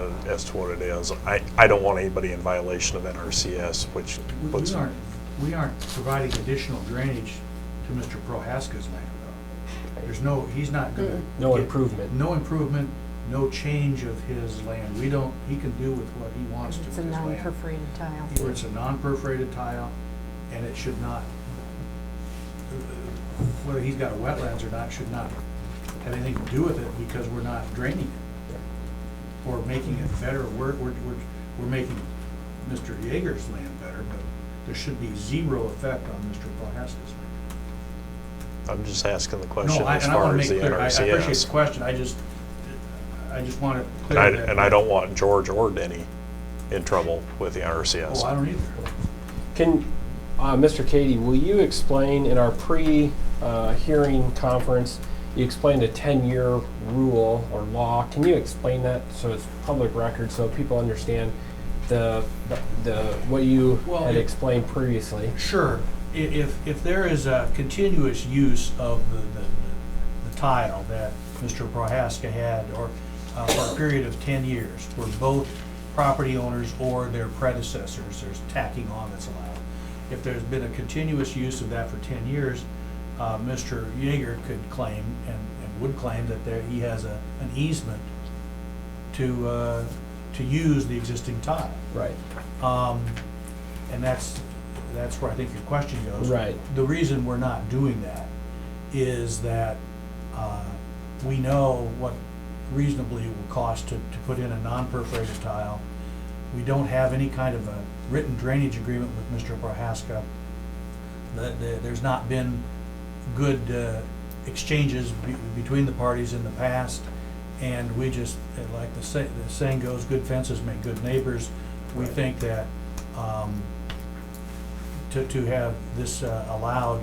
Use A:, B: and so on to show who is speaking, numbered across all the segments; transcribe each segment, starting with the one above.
A: uh, as to what it is. I, I don't want anybody in violation of NRCS, which
B: We-
A: puts.
B: We aren't, we aren't providing additional drainage to Mr. Prohaska's land, though. There's no, he's not gonna.
C: No
B: get-
C: improvement.
B: No improvement, no change of his land. We don't, he can do with what he wants to with
D: It's a
B: his land.
D: non-perforated tile.
B: Where it's a non-perforated tile, and it should not, whether he's got wetlands or not, should not have anything to do with it, because we're not draining it or making it better. We're, we're, we're, we're making Mr. Yeager's land better, but there should be zero effect on Mr. Prohaska's land.
A: I'm just asking the
B: No,
A: question
B: I,
A: as
B: and I wanna
A: far as
B: make
A: the
B: clear, I I appreciate the
A: NRCS.
B: question, I just, I just want it
A: And I,
B: clear that.
A: and I don't want George or Denny in trouble with the NRCS.
B: Oh, I don't either.
C: Can, uh, Mr. Cady, will you explain, in our pre-hearing conference, you explained a 10-year rule or law. Can you explain that so it's public record, so people understand the, the, what you
B: Well,
C: had
B: it-
C: explained previously?
B: Sure. I- If, if there is a continuous use of the, the- the tile that Mr. Prohaska had, or uh, for a period of 10 years, where both property owners or their predecessors, there's tacking on that's allowed. If there's been a continuous use of that for 10 years, uh, Mr. Yeager could claim, and and would claim, that there, he has a, an easement to, uh, to use the existing tile.
C: Right.
B: Um, And that's, that's where I think your question goes.
C: Right.
B: The reason we're not doing that is that uh, we know what reasonably it will cost to, to put in a non-perforated tile. We don't have any kind of a written drainage agreement with Mr. Prohaska. The- the- There's not been good uh, exchanges be- between the parties in the past, and we just, and like the say- the saying goes, good fences make good neighbors. We
C: Right.
B: think that um, to to have this uh, allowed,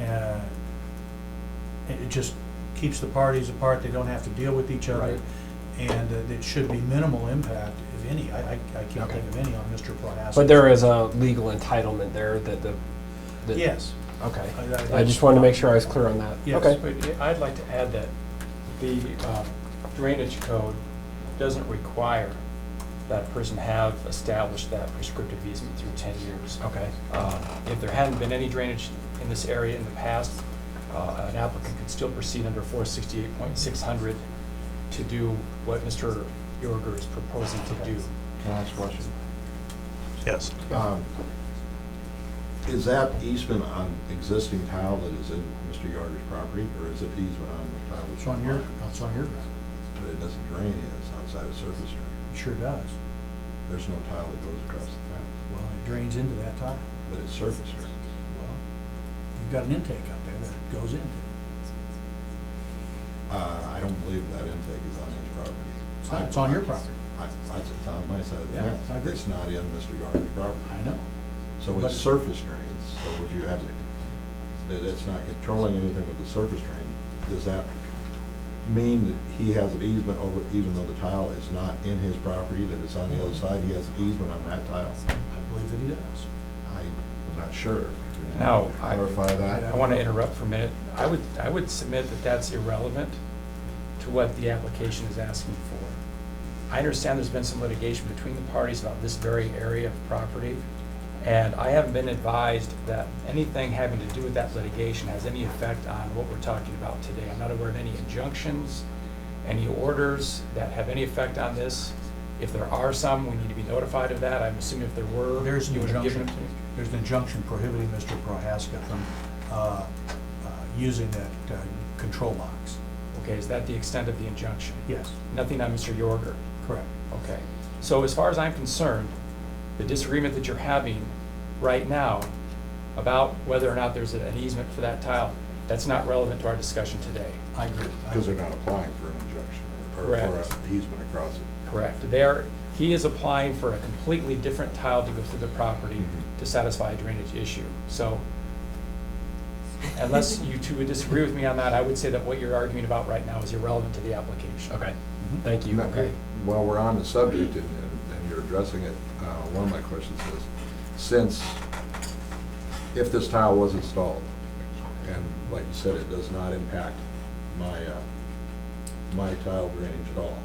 B: uh, it it just keeps the parties apart, they don't have to deal with each other.
C: Right.
B: And uh, it should be minimal impact, if any. I I- I can't think of any on Mr. Prohaska.
C: But there is a legal entitlement there that the, that-
B: Yes.
C: Okay.
B: I- I-
C: I just wanted to make sure I was clear on that.
B: Yes.
C: Okay.
E: Wait, I'd like to add that the um, drainage code doesn't require that a person have established that prescriptive easement through 10 years.
C: Okay.
E: Um, If there hadn't been any drainage in this area in the past, uh, an applicant could still proceed under 468.600 to do what Mr. Yorger is proposing to do.
F: Can I ask a question?
A: Yes.
F: Um, Is that easement on existing tile that is in Mr. Yarder's property, or is it easement on the tile? that's
B: It's on your, it's on your ground.
F: But it doesn't drain, in, it's outside of surface drain.
B: It sure does.
F: There's no tile that goes across the tile,
B: Well, it drains into that tile.
F: but it's surface drain.
B: Well, you've got an intake out there that goes into it.
F: Uh, I don't believe that intake is on his property.
B: It's not- It's on your property.
F: I, I- it's on my side of the
B: Yeah,
F: fence.
B: I agree.
F: It's not in Mr. Yarder's property.
B: I know.
F: So
B: But-
F: it's surface drains, so would you have, that it's not controlling anything with the surface drain, does that mean that he has an easement over, even though the tile is not in his property, that it's on the other side, he has an easement on that tile?
B: I believe that he does.
F: I'm not sure.
E: Now, I-
F: Clarify that.
E: I want to interrupt for a minute. I would, I would submit that that's irrelevant to what the application is asking for. I understand there's been some litigation between the parties about this very area of property, and I haven't been advised that anything having to do with that litigation has any effect on what we're talking about today. I'm not aware of any injunctions, any orders that have any effect on this. If there are some, we need to be notified of that. I'm assuming if there were.
B: There's an
E: you would have given
B: injunction,
E: them to me.
B: there's an injunction prohibiting Mr. Prohaska from uh, uh, using that uh, control box.
E: Okay, is that the extent of the injunction?
B: Yes,
E: Nothing on Mr. Yorger?
B: correct.
E: Okay. So as far as I'm concerned, the disagreement that you're having right now about whether or not there's an easement for that tile, that's not relevant to our discussion today.
B: I agree.
F: Because they're not applying for an injunction or or
E: Correct.
F: an easement across it.
E: Correct. There, he is applying for a completely different tile to go through the property
B: Mm-hmm.
F: Mhm.
E: to satisfy a drainage issue. So unless you two would disagree with me on that, I would say that what you're arguing about right now is irrelevant to the application.
C: Okay. Thank you.
F: Okay. While we're on the subject and, and- and you're addressing it, uh, one of my questions is, since, if this tile was installed, and like you said, it does not impact my, uh, my tile drainage at all,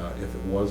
F: uh, if it was